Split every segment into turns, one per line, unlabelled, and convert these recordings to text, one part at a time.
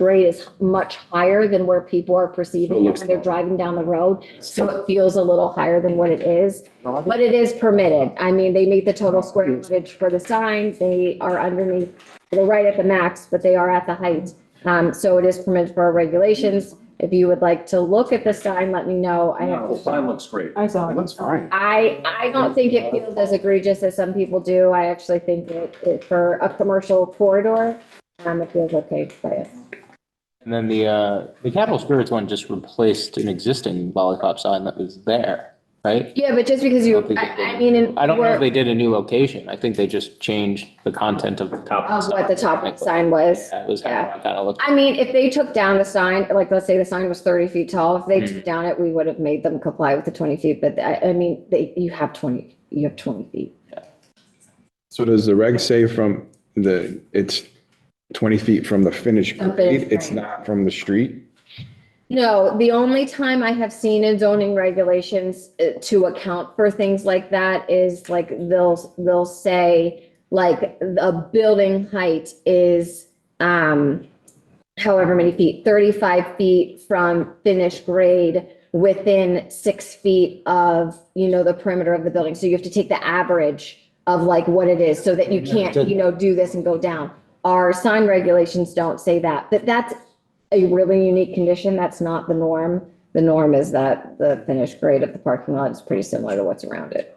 grade is much higher than where people are perceiving
So it
it
looks
when they're
low.
driving down the road. So it feels a little higher than what it is,
Well,
but it is permitted. I mean, they meet the total square footage for the sign. They are underneath, they're right at the max, but they are at the height. Um, so it is permitted for our regulations. If you would like to look at the sign, let me know. I have
No, the sign looks great.
I saw
It
it.
Oh, looks fine.
I, I don't think it feels as egregious as some people do. I actually think it, it for a commercial corridor, um, it feels okay, but
And then the, uh, the Capital Spirits one just replaced an existing lollipop sign that was there, right?
yeah, but just because
I
you,
don't think
I,
it did.
I mean, in.
I don't know
we're-
if they did a new location. I think they just changed the content of the top.
Of Oh, what the top sign was.
That was kind of, kind of looked.
I mean, if they took down the sign, like, let's say the sign was thirty feet tall, if they took
Mhm.
down it, we would have made them comply with the twenty feet, but I, I mean, they, you have twenty, you have twenty feet.
So does the reg say from the, it's 20 feet from the finished
From finished
grade? It's
grade.
not from the street?
No, the only time I have seen in zoning regulations uh, to account for things like that is like they'll, they'll say like a building height is, um, however many feet, 35 feet from finished grade within six feet of, you know, the perimeter of the building. So you have to take the average of like what it is so that you can't, you know, do this and go down. Our sign regulations don't say that, but that's a really unique condition. That's not the norm. The norm is that the finished grade of the parking lot is pretty similar to what's around it.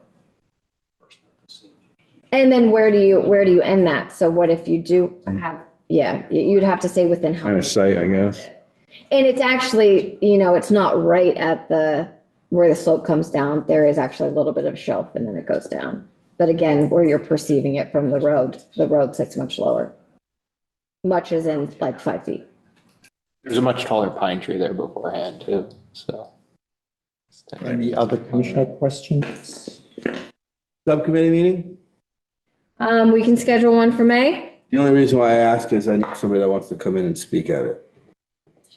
And then where do you, where do you end that? So what if you do have, yeah, you- you'd have to say within how
Kind of
many
sight, I guess.
and it's actually, you know, it's not right at the, where the slope comes down. There is actually a little bit of shelf and then it goes down. But again, where you're perceiving it from the road, the road sits much lower. Much is in like five feet.
There's a much taller pine tree there beforehand too, so.
Any other commissioner questions? Subcommittee meeting?
Um, we can schedule one for May.
The only reason why I ask is I know somebody that wants to come in and speak at it.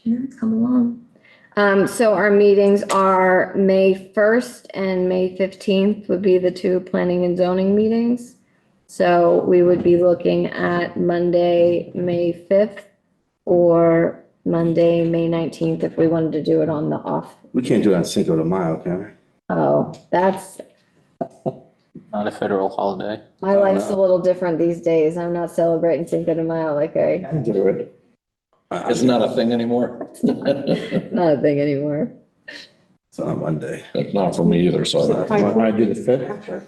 Sure, come along. Um, so our meetings are May first and May fifteenth would be the two planning and zoning meetings. So we would be looking at Monday, May fifth or Monday, May nineteenth, if we wanted to do it on the off.
We can't do it on Cinco de Mayo, can we?
Oh, that's,
Not a federal holiday.
my life's a little different these days. I'm not celebrating Cinco de Mayo like I,
can do it. Uh,
It's not a thing anymore.
not a thing anymore.
It's on Monday.
Not for me either, so. I-
I do the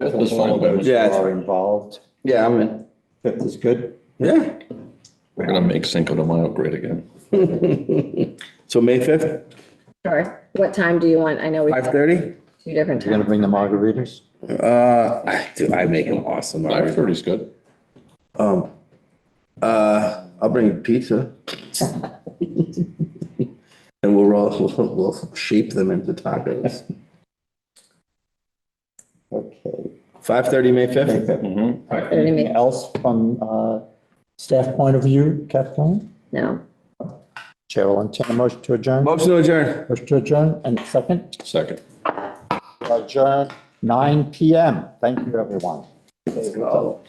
That's fine, but
Yeah, it's-
involved.
Yeah, I'm in.
Fifth is good.
Yeah.
We're gonna make Cinco de Mayo great again.
So May fifth,
Sure. What time do you want? I know we
five
have
thirty?
two different
You're gonna
times.
bring the margaritas?
Uh, I- dude, I make them awesome.
Five
already.
thirty's good.
Um, uh, I'll bring pizza. And we'll roll, we'll, we'll shape them into tacos.
Okay.
Five thirty, May fifth?
Mhm.
Thirty
Anything
minutes.
else from, uh, staff point of view, Kathleen?
No.
Chair will entertain a motion to adjourn.
Motion to adjourn.
Motion to adjourn and second,
Second.
adjourn nine PM. Thank you, everyone.
Let's go.